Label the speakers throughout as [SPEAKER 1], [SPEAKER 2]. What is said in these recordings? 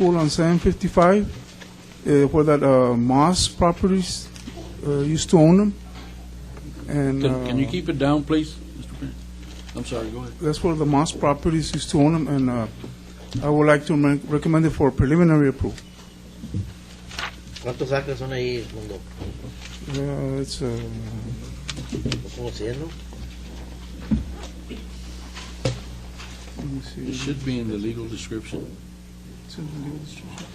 [SPEAKER 1] pool on 755, uh, where that uh, Moss Properties uh, used to own them. And
[SPEAKER 2] Can, can you
[SPEAKER 1] uh,
[SPEAKER 2] keep it down, please, Mr. Pena? I'm sorry, go ahead.
[SPEAKER 1] that's where the Moss Properties used to own them, and uh, I would like to men- recommend it for preliminary approval.
[SPEAKER 3] ¿Cuántos acres son ahí, mundo?
[SPEAKER 1] Uh, It's, uh,
[SPEAKER 3] ¿Cómo se llama?
[SPEAKER 1] let me see.
[SPEAKER 2] It should be in the legal description.
[SPEAKER 1] It's in the legal description.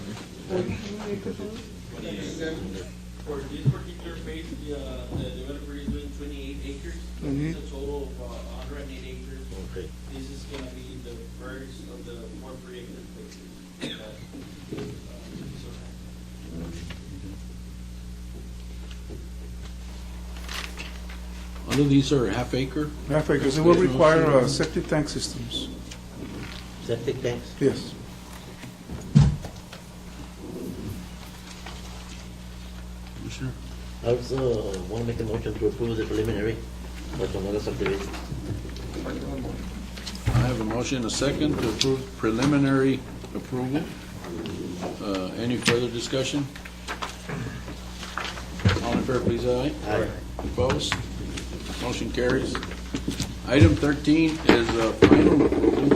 [SPEAKER 4] For this particular phase, the, uh, the developer is doing twenty-eight acres.
[SPEAKER 1] Mhm.
[SPEAKER 4] It's a total of uh hundred and eight acres.
[SPEAKER 3] Mm-hmm. Okay.
[SPEAKER 4] This is gonna be the first of the four predicted phases. Uh, so-
[SPEAKER 2] Under these are half acre,
[SPEAKER 1] Yeah, because it will require uh, septic tank systems.
[SPEAKER 3] Septic tanks.
[SPEAKER 1] Yes.
[SPEAKER 2] Commissioner.
[SPEAKER 3] I also want to make a motion to approve the preliminary, but on other subdivision.
[SPEAKER 2] I have a motion, a second, to approve preliminary approval. Uh, Any further discussion? All in fair, please, aye.
[SPEAKER 3] Aye.
[SPEAKER 2] Opposed? Motion carries. Item 13 is uh, final approval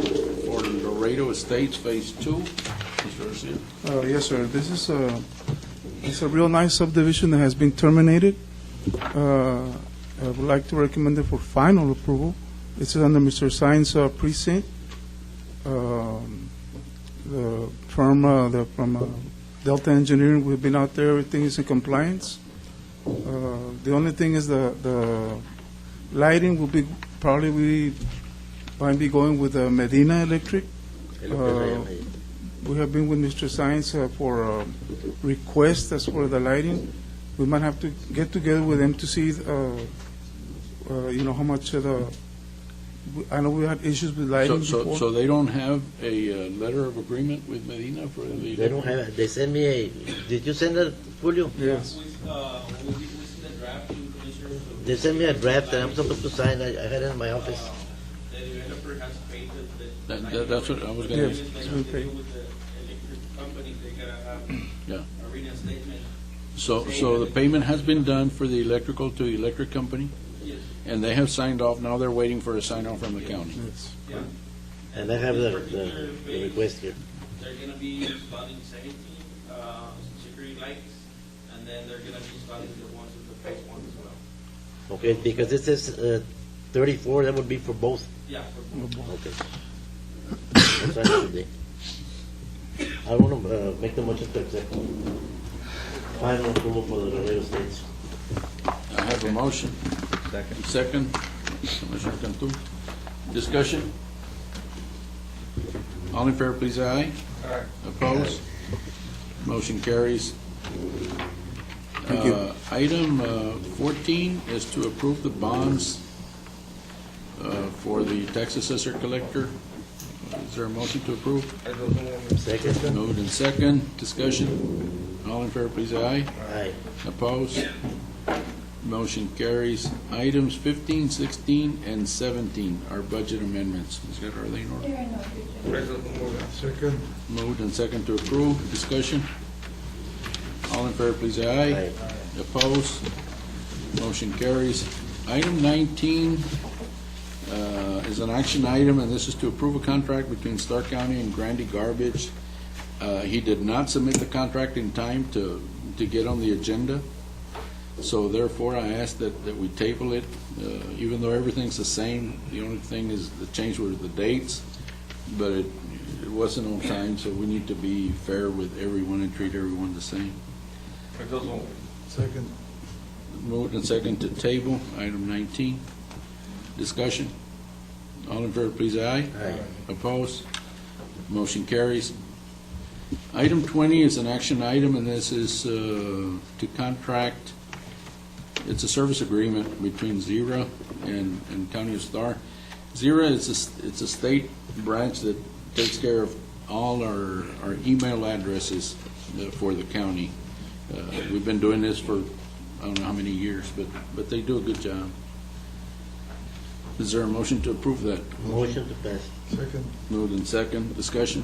[SPEAKER 2] for the Laredo Estates Phase 2. Mr. Garcia.
[SPEAKER 1] Uh, Yes, sir. This is a, it's a real nice subdivision that has been terminated. Uh, I would like to recommend it for final approval. It's under Mr. Sines uh, precinct. Um, The firm, uh, the, from uh, Delta Engineering, we've been out there, everything is in compliance. Uh, The only thing is the, the lighting will be, probably we might be going with uh, Medina Electric. Uh,
[SPEAKER 3] Es lo que se
[SPEAKER 1] Ah.
[SPEAKER 3] llama ahí.
[SPEAKER 1] We have been with Mr. Science uh, for um, requests as for the lighting. We might have to get together with them to see, uh, uh, you know, how much of the, I know we had issues with lighting
[SPEAKER 2] So- So
[SPEAKER 1] before.
[SPEAKER 2] so they don't have a uh, letter of agreement with Medina for the...
[SPEAKER 3] They don't have, they send me a, did you send that, Julio?
[SPEAKER 1] Yes.
[SPEAKER 4] With, uh, will you listen the draft to commissioners? of-
[SPEAKER 3] They sent me a draft that I'm supposed to sign, I I had it in my office.
[SPEAKER 4] Uh, The developer has paid the. the-
[SPEAKER 2] That- that- that's what I was gonna
[SPEAKER 1] Yes,
[SPEAKER 4] They
[SPEAKER 1] it's
[SPEAKER 4] have to
[SPEAKER 1] been paid.
[SPEAKER 4] deal With the electric company, they gotta have
[SPEAKER 2] Yeah.
[SPEAKER 4] arena statement.
[SPEAKER 2] So, so the payment has been done for the electrical to the electric company?
[SPEAKER 4] Yes.
[SPEAKER 2] And they have signed off, now they're waiting for a sign off from the county.
[SPEAKER 1] Yes.
[SPEAKER 4] Yeah,
[SPEAKER 3] And I have the, the- the request here.
[SPEAKER 4] they're gonna be installing seventeen, uh, security lights, and then they're gonna be installing the ones with the phase one as well.
[SPEAKER 3] Okay, because this is uh, 34, that would be for both.
[SPEAKER 4] Yeah, for
[SPEAKER 3] Okay. I'll sign it today. I want to make the motion to accept final approval for the Laredo Estates.
[SPEAKER 2] I have a motion. Second. Second, Commissioner Cantu. Discussion? All in fair, please, aye. Aye. Opposed? Motion carries.
[SPEAKER 1] Thank you.
[SPEAKER 2] Uh, Item uh, 14 is to approve the bonds uh, for the tax assessor collector. Is there a motion to approve?
[SPEAKER 3] Second?
[SPEAKER 2] Moved and second, discussion. All in fair, please, aye.
[SPEAKER 3] Aye.
[SPEAKER 2] Opposed? Motion carries. Items 15, 16, and 17 are budget amendments. Ms. Geraldine, order. Moved and second to approve, discussion. All in favor, please say aye.
[SPEAKER 3] Aye.
[SPEAKER 2] Opposed? Motion carries. Item 19 uh, is an action item, and this is to approve a contract between Stark County and Grandy Garbage. Uh, He did not submit the contract in time to, to get on the agenda, so therefore I ask that, that we table it, uh, even though everything's the same. The only thing is, the change were the dates, but it, it wasn't on time, so we need to be fair with everyone and treat everyone the same.
[SPEAKER 1] Second.
[SPEAKER 2] Moved and second to table, item 19. Discussion? All in favor, please, aye.
[SPEAKER 3] Aye.
[SPEAKER 2] Opposed? Motion carries. Item 20 is an action item, and this is uh, to contract, it's a service agreement between Zira and and County of Star. Zira is, a s- it's a state branch that takes care of all our our email addresses uh, for the county. Uh, We've been doing this for, I don't know how many years, but, but they do a good job. Is there a motion to approve that?
[SPEAKER 3] Motion to pass.
[SPEAKER 2] Moved in second, discussion.